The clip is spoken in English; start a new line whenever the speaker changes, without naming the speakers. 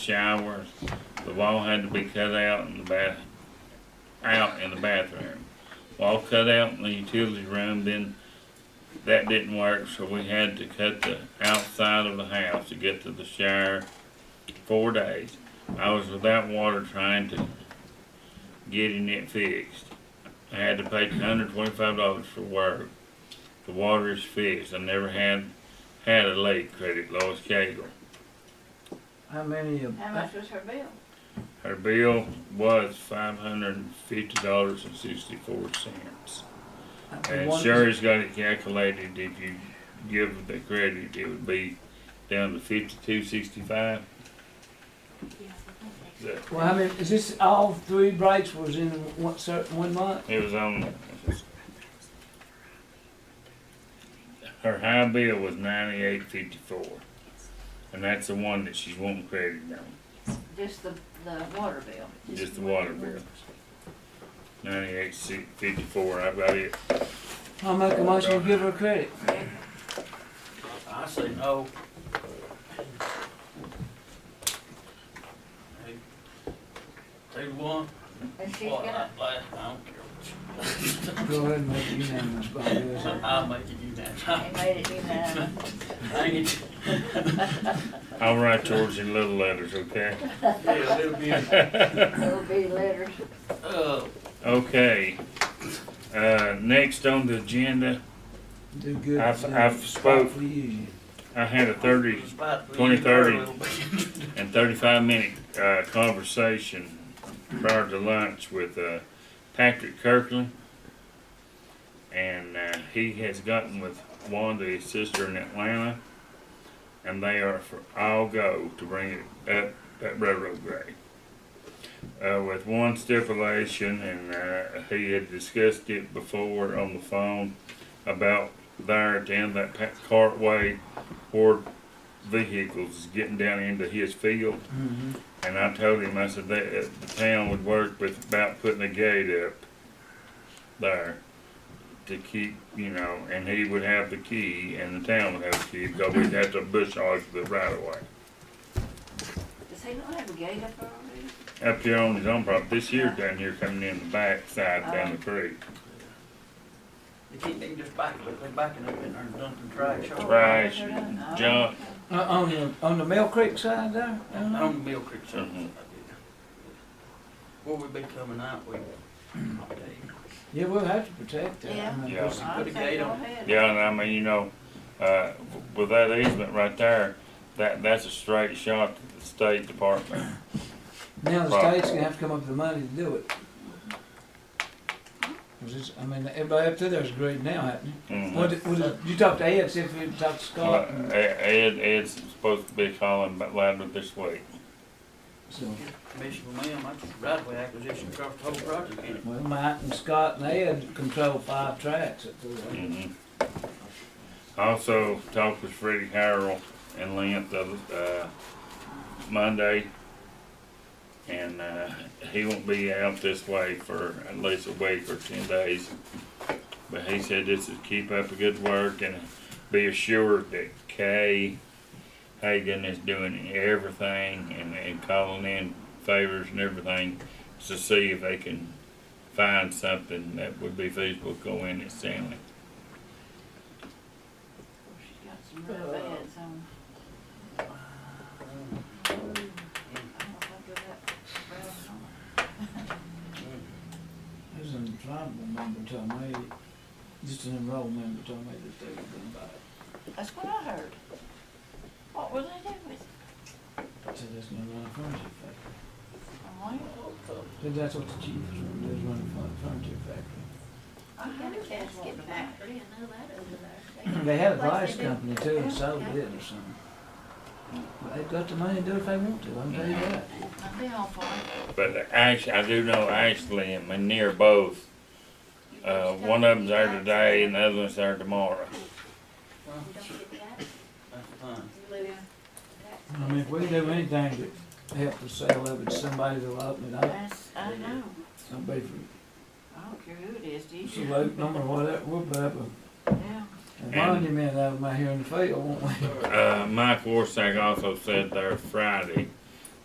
showers. The wall had to be cut out in the bath, out in the bathroom. Wall cut out in the utility room, then that didn't work, so we had to cut the outside of the house to get to the shower. Four days. I was without water trying to getting it fixed. I had to pay hundred twenty-five dollars for work. The water is fixed. I never had, had a leak credit, Lois Cagle.
How many of,
How much was her bill?
Her bill was five hundred and fifty dollars and sixty-four cents. And
one-
Sherry's got it calculated, if you give the credit, it would be down to fifty-two sixty-five.
well, how many, is this all three breaks was in one certain one month?
It was on. Her high bill was ninety-eight fifty-four, and that's the one that she's wanting credit on,
Just the, the water bill.
just the water bill. Ninety-eight si- fifty-four, I've got it.
I'll make a motion to give her credit.
I say no. They want,
And she's
what,
gonna,
I, I don't care what
Go ahead and make it unanimous, Bobby. is
you.
it?
I'll make it
they
unanimous.
made it unanimous.
Dang it.
I'll write yours in little letters, okay?
Yeah, it'll be,
Little bitty letters.
uh,
Okay. Uh, next on the agenda,
Do good.
I've-
do
I've
it
spoke.
For you.
I had a thirty
despite the
2030.
little bit.
and thirty-five minute, uh, conversation prior to lunch with, uh, Patrick Kirkland. And, uh, he has gotten with Wanda, his sister in Atlanta, and they are for all go to bring it up at railroad grade. Uh, with one stipulation, and, uh, he had discussed it before on the phone about there at the end of that pa- cartway where vehicles getting down into his field.
Mhm.
And I told him, I said, that uh, the town would work with about putting a gate up there to keep, you know, and he would have the key and the town would have the key, because we'd have to bush hog the right of way.
Does he not have a gate up there already?
Up here on his own property, this year down here coming in the back side down the creek.
You can't even just back, look, they backing up in there and dumping trash.
Oh,
over.
Trash,
they're done. Oh,
junk.
Uh, on the, on the Mill Creek side there?
On
Uh-huh.
the Mill Creek side.
Mhm.
Where we be coming out, we,
Yeah, we'll have to protect that.
Yeah.
Yeah.
I'd
Put a
say
gate
go
on it.
ahead.
Yeah, and I mean, you know, uh, with that easement right there, that, that's a straight shot to the state department.
Now the
Right.
state's gonna have to come up with the money to do it. 'Cause it's- I mean, everybody up there there's great now, hasn't it?
Mhm.
What, what, is- you talked to Ed, see if we talked to
Well,
Scott, and
Ed, Ed's supposed to be calling about louder this week.
so,
Commissioner, ma'am, I just right away acquisition across the whole project, ain't it?
well, Mike and Scott and Ed control five tracks up there.
Mhm. Also talked with Freddie Harrell and Lynn the, other- uh, Monday. And, uh, he won't be out this way for at least a week or ten days. But he said this is keep up the good work and be assured that Kay Hagan is doing everything and, and calling in favors and everything to see if they can find something that would be feasible to go in at Stanley.
Oh, She's got some real beds on. I don't think of that. Well,
There's an tribal member told me, just an enrolled member told me that they were gonna buy it,
That's what I heard. What will they do with it?
so there's no run furniture factory.
I wonder.
Said that's what the chief was running, there's running furniture factory.
I heard it was wanting to buy it.
They had a glass company too and sold it or something. But they've got the money to do it if they want to, I'm telling you that.
I'd be all for it.
But Ash, I do know Ashley and Manir both. Uh, one of them's there today and the other one's there tomorrow.
That's fine.
I mean, if we do anything to help the sale of it, somebody will open it up,
That's, I know.
somebody for
I don't care who it is, do you?
salute them or whatever, we'll put up a-
Yeah.
a monument out of my here in the field, won't we?
Uh, Mike Warsack also said there Friday